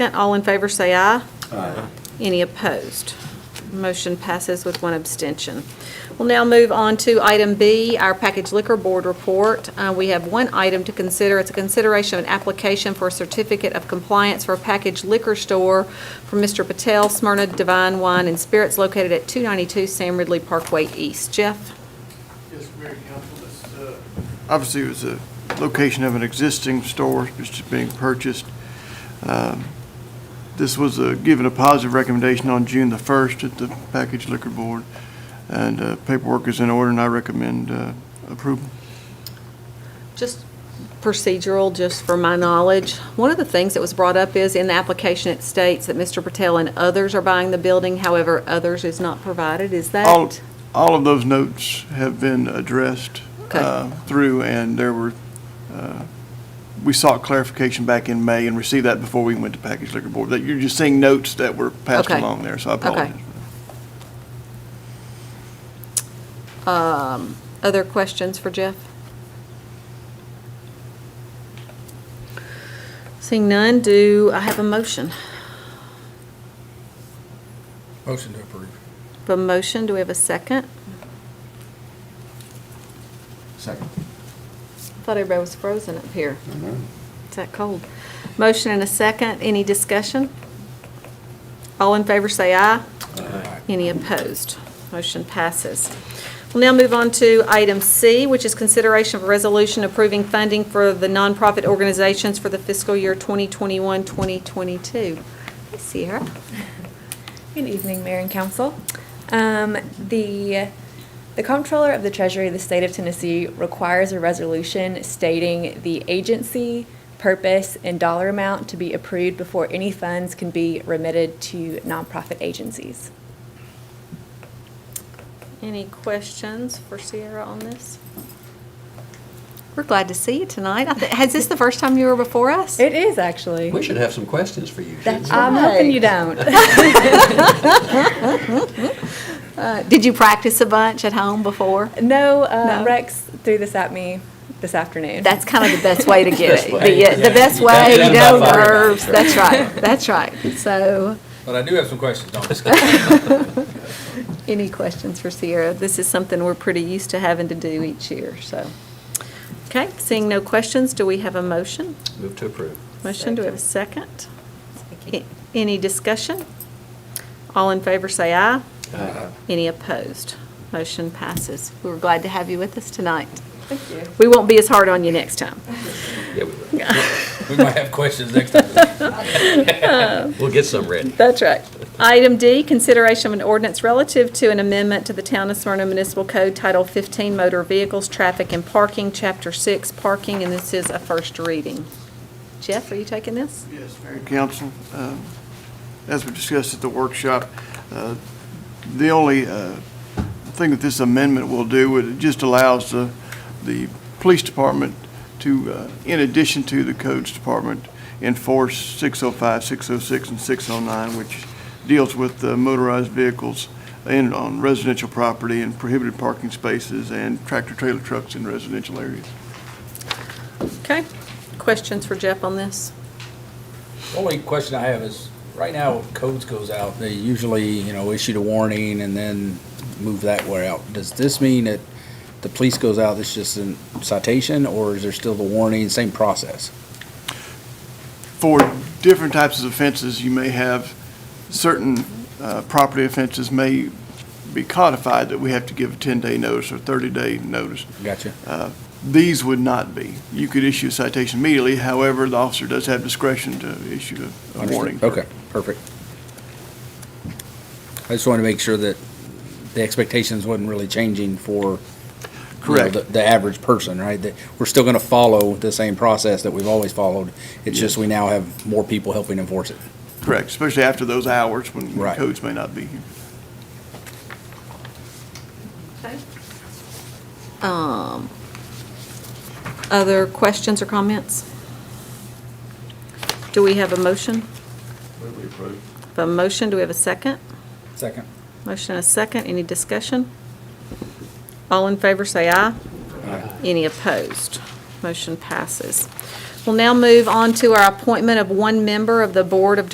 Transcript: All in favor, say aye. Aye. Any opposed? Motion passes with one abstention. We'll now move on to item B, our package liquor board report. Uh, We have one item to consider. It's a consideration of an application for a certificate of compliance for a package liquor store from Mr. Patel, Smyrna Divine Wine and Spirits located at 292 Sam Ridley Parkway East. Jeff? Yes, Mayor Council, this, uh, obviously it was a location of an existing store, which is being purchased. Um, This was uh, given a positive recommendation on June the 1st at the Package Liquor Board, and uh, paperwork is in order, and I recommend uh, approval. Just procedural, just for my knowledge, one of the things that was brought up is in the application, it states that Mr. Patel and others are buying the building, however, others is not provided. Is All, that? all of those notes have been addressed Okay. uh, through, and there were, uh, we sought clarification back in May and received that before we went to Package Liquor Board. That You're just seeing notes that were passed Okay. along there, so I Okay. apologize. Um, Other questions for Jeff? Seeing none, do I have a motion? Motion to approve. A motion, do we have a second? Second. Thought everybody was frozen up here. I know. It's that cold. Motion and a second, any discussion? All in favor, say aye. Any opposed? Motion passes. We'll now move on to item C, which is consideration of a resolution approving funding for the nonprofit organizations for the fiscal year 2021-2022. Hey, Sierra. Good evening, Mayor and Council. Um, The, the Comptroller of the Treasury of the State of Tennessee requires a resolution stating the agency, purpose, and dollar amount to be approved before any funds can be remitted to nonprofit agencies. Any questions for Sierra on this? We're glad to see you tonight. I thi- Has this the first time you were before us? It is, actually. We should have some questions for you, shouldn't That's- we? I'm hoping you don't. Uh, Did you practice a bunch at home before? No, uh, No. Rex threw this at me this afternoon. That's kind of the best way to get Best it. way. The yeah, the Yeah. best You got way, it you out know, by fire. nerves, that's right, that's right. So, But I do have some questions, no, I'm just kidding. any questions for Sierra? This is something we're pretty used to having to do each year, so. Okay, seeing no questions, do we have a motion? Move to approve. Motion, do we have a second? A- Any discussion? All in favor, say aye. Aye. Uh, Any opposed? Motion passes. We were glad to have you with us tonight. Thank you. We won't be as hard on you next time. Yeah, we will. We might have questions next time. We'll get some ready. That's right. Item D, consideration of an ordinance relative to an amendment to the Town of Smyrna Municipal Code Title 15 Motor Vehicles, Traffic and Parking, Chapter 6 Parking, and this is a first reading. Jeff, are you taking this? Yes, Mayor and Council, um, as we discussed at the workshop, uh, the only uh, thing that this amendment will do, it just allows the, the police department to, uh, in addition to the codes department, enforce 605, 606, and 609, which deals with uh, motorized vehicles in, on residential property and prohibited parking spaces and tractor-trailer trucks in residential areas. Okay. Questions for Jeff on this? Only question I have is, right now, codes goes out, they usually, you know, issue the warning and then move that way out. Does this mean that the police goes out, it's just a citation, or is there still the warning, same process? for different types of offenses, you may have certain uh, property offenses may be codified that we have to give a 10-day notice or 30-day notice. Gotcha. Uh, These would not be. You could issue a citation immediately, however, the officer does have discretion to issue a- a Understood. warning. Okay, perfect. I just wanted to make sure that the expectations wasn't really changing for. you know, Correct. The, the average person, right? That we're still gonna follow the same process that we've always followed. It's just we now have more people helping enforce it. Correct, especially after those hours when when Right. codes may not be here. Um, Other questions or comments? Do we have a motion? A motion, do we have a second? Second. Motion and a second, any discussion? All in favor, say aye. Any opposed? Motion passes. We'll now move on to our appointment of one member of the Board of